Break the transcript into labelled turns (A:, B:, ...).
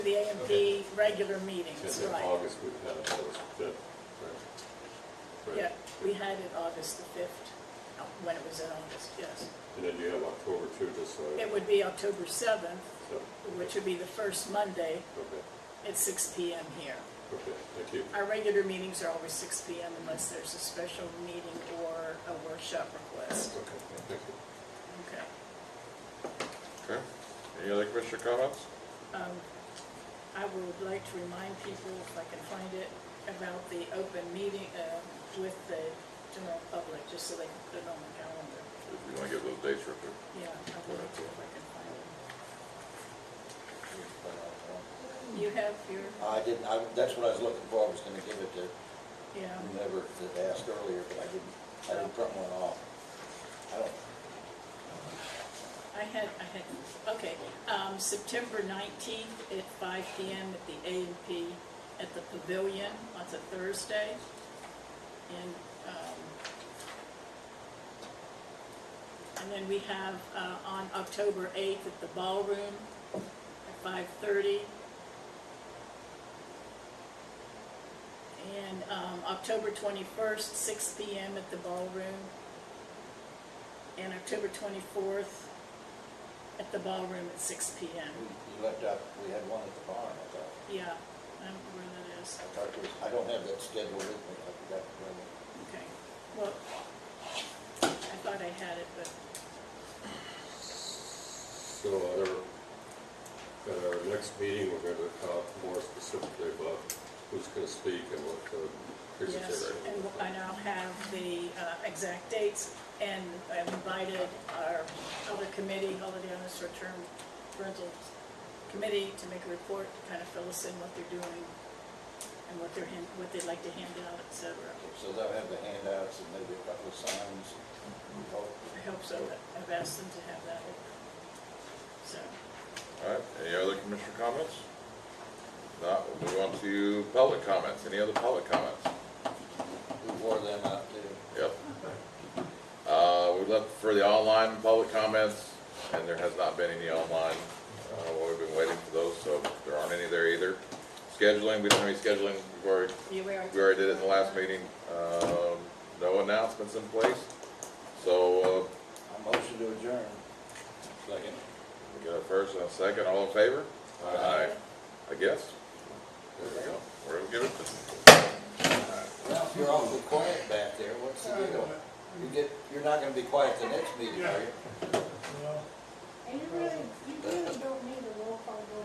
A: the A and B regular meetings,
B: And then
A: right.
B: August, we had August fifth, right?
A: Yeah,
B: Right.
A: we had it August the fifth, uh, when it was in August, yes.
B: And then you have October too, just so.
A: It would be October seventh,
B: so,
A: which would be the first Monday
B: Okay,
A: at six P M here.
B: okay, thank you.
A: Our regular meetings are always six P M unless there's a special meeting or a workshop request.
B: Okay, thank you.
A: Okay.
C: Okay, any other commissioner comments?
A: Um, I would like to remind people, if I can find it, about the open meeting uh, with the general public, just so they can put it on the calendar.
C: If you wanna give those dates real quick.
A: Yeah, I would like to if I can find it. You have your,
D: I didn't, I, that's what I was looking for, I was gonna give it to
A: yeah,
D: whomever that asked earlier, but I didn't, I didn't print one off. I don't,
A: I had, I had, okay. Um, September nineteenth at five P M at the A and P at the Pavilion, that's a Thursday. And, um, and then we have, uh, on October eighth at the Ballroom at five thirty. And, um, October twenty-first, six P M at the Ballroom. And October twenty-fourth at the Ballroom at six P M.
D: we- you left out, we had one at the barn, I thought.
A: Yeah, I don't know where that is.
D: I thought there was, I don't have that schedule with me, I forgot to bring it.
A: Okay, well, I thought I had it, but,
B: So at our, at our next meeting, we're gonna talk more specifically about who's gonna speak and what the
A: yes,
B: presentation.
A: and
B: will be.
A: I now have the uh, exact dates, and I've invited our other committee, Holiday on the Short-Term Rental Committee, to make a report, to kind of fill us in what they're doing, and what they're, hand- what they'd like to hand out, et cetera.
D: Okay, So they'll have the handouts and maybe a couple of signs, Oh, we hope.
A: I hope so, but I've asked them to have that, so,
C: All right, any other commissioner comments? Not, we'll move on to public comments, any other public comments?
D: We wore them out too.
C: Yep. Uh, we looked for the online public comments, and there has not been any online. Uh, well, we've been waiting for those, so there aren't any there either. Scheduling, we don't have any scheduling, we've already,
A: yeah, we are.
C: we already did it in the last meeting. Um, no announcements in place, so, uh,
D: I motion to adjourn. Second.
C: We got a first and a second, all in favor? Aye. I guess. There we go. We're gonna give it,
D: Ralph, you're awfully quiet back there, what's the deal? You get, you're not gonna be quiet the next meeting, are you?
E: And you really, you really don't